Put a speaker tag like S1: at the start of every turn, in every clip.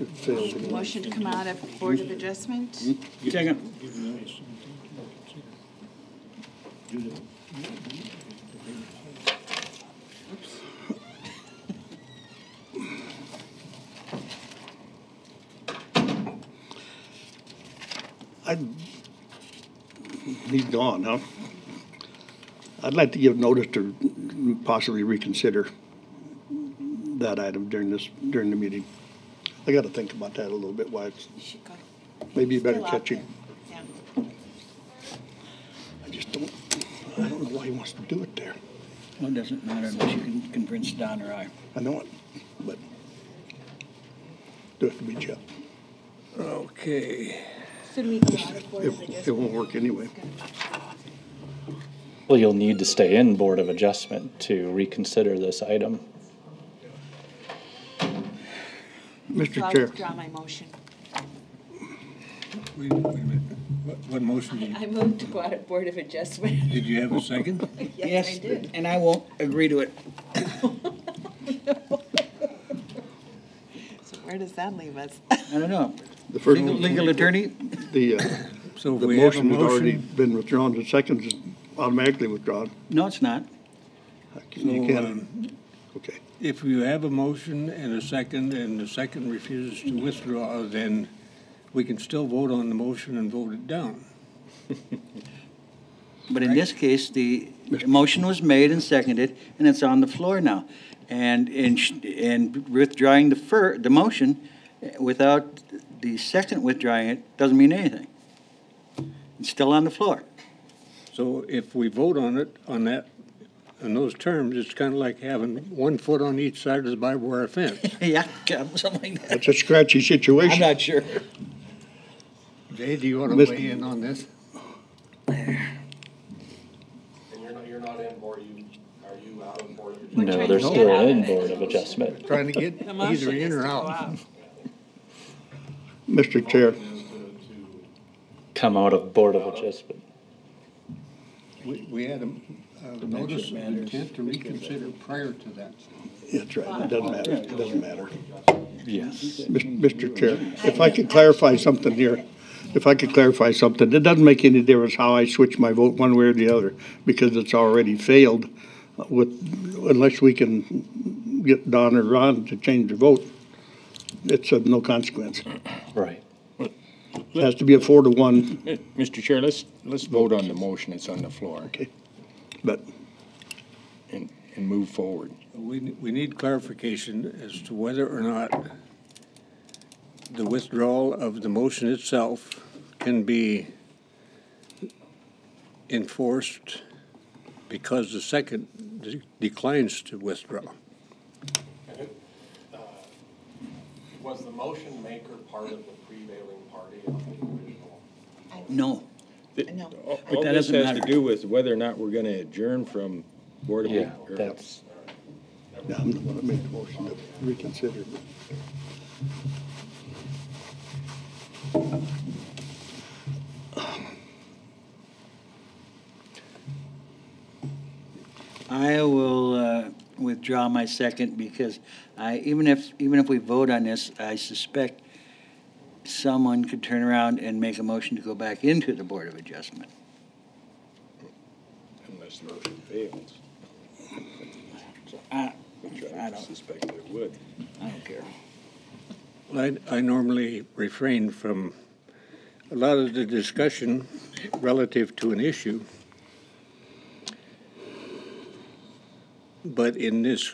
S1: It failed. anyway.
S2: Motion to come out of Board of Adjustment?
S3: Second.
S1: I'd, he's gone, huh? I'd like to give notice to possibly reconsider that item during this, during the meeting. I gotta think about that a little bit, why it's,
S2: Should go.
S1: maybe you better
S2: Still out
S1: catch him.
S2: there. Yeah.
S1: I just don't, I don't know why he wants to do it there.
S3: Well, it doesn't matter unless you can convince Don or I.
S1: I know it, but do it to be Jeff.
S3: Okay.
S2: So do we go out of Board of
S1: It, it
S2: Adjustment?
S1: won't work anyway.
S4: Well, you'll need to stay in Board of Adjustment to reconsider this item.
S2: So
S1: Mr.
S2: I'll
S1: Chair,
S2: withdraw my motion.
S5: Wait, wait a minute, what, what motion, did-
S2: I moved to go out of Board of Adjustment.
S5: did you have a second?
S2: Yes, I did.
S3: And I won't agree to it.
S2: So where does that leave us?
S3: I don't know.
S1: the first
S3: Legal,
S1: one,
S3: legal attorney?
S1: the, uh,
S5: So if
S1: the
S5: we have a
S1: motion has already
S5: motion,
S1: been withdrawn, the second is automatically withdrawn.
S3: No, it's not.
S1: You
S5: So,
S1: can, okay.
S5: if you have a motion and a second, and the second refuses to withdraw, then we can still vote on the motion and vote it down.
S3: But in this case, the motion was made and seconded, and it's on the floor now. And, and, sh- and withdrawing the fir, the motion eh, without the second withdrawing it doesn't mean anything. It's still on the floor.
S5: So if we vote on it, on that, on those terms, it's kind of like having one foot on each side of the barbed wire fence.
S3: Yeah, something like that.
S1: It's a scratchy
S3: I'm
S1: situation.
S3: not sure.
S5: Jay, do you want
S1: Mr.
S5: to weigh in on this?
S6: And you're not, you're not in board, you, are you out of board?
S4: No,
S2: trying
S4: they're
S2: to
S4: still
S2: get out
S4: in
S2: of it.
S4: Board of Adjustment.
S5: Trying to get either in or out.
S1: Mr. Chair,
S6: Is to, to
S4: Come out of Board of Adjustment.
S5: We, we had a, a notice of intent to reconsider prior to that.
S1: that's right, it doesn't matter, it doesn't matter.
S4: Yes.
S1: Mis- Mr. Chair, if I could clarify something here, if I could clarify something, it doesn't make any difference how I switch my vote one way or the other, because it's already failed with, unless we can get Don or Ron to change the vote, it's of no consequence.
S4: Right.
S1: It has to be a four to one,
S7: Mr. Chair, let's, let's vote on the motion that's on the floor
S1: but
S7: and, and move forward.
S5: We, we need clarification as to whether or not the withdrawal of the motion itself can be enforced because the second de- declines to withdraw.
S6: Uh, was the motion maker part of the prevailing party on the original?
S3: No.
S2: No.
S5: Oh,
S8: All
S3: But
S8: all
S3: that
S8: this
S3: doesn't
S8: has to
S3: matter.
S8: do with whether or not we're gonna adjourn from Board of.
S4: Yeah,
S8: or-
S4: that's,
S1: no, I'm the one that made the motion to reconsider.
S3: I will uh, withdraw my second because I, even if, even if we vote on this, I suspect someone could turn around and make a motion to go back into the Board of Adjustment.
S8: Unless the motion fails,
S3: I,
S8: which
S3: I
S8: I
S3: don't-
S8: suspect it would.
S3: I don't care.
S5: I, I normally refrain from a lot of the discussion relative to an issue. But in this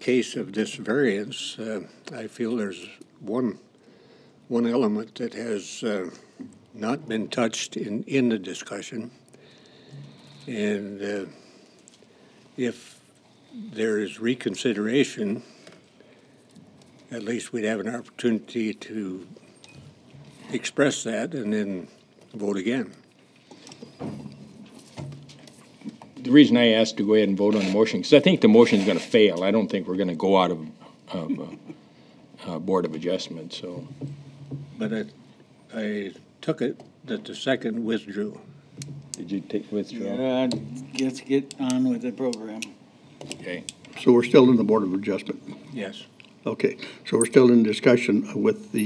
S5: case of this variance, uh, I feel there's one, one element that has uh, not been touched in, in the discussion. And uh, if there is reconsideration, at least we'd have an opportunity to express that and then vote again.
S7: The reason I asked to go ahead and vote on the motion, because I think the motion's gonna fail. I don't think we're gonna go out of, of, uh, uh, Board of Adjustment, so.
S5: But I, I took it that the second withdrew.
S8: Did you take withdraw?
S3: Yeah, let's get on with the program.
S7: Okay.
S1: So we're still in the Board of Adjustment.
S5: Yes.
S1: Okay, so we're still in discussion with the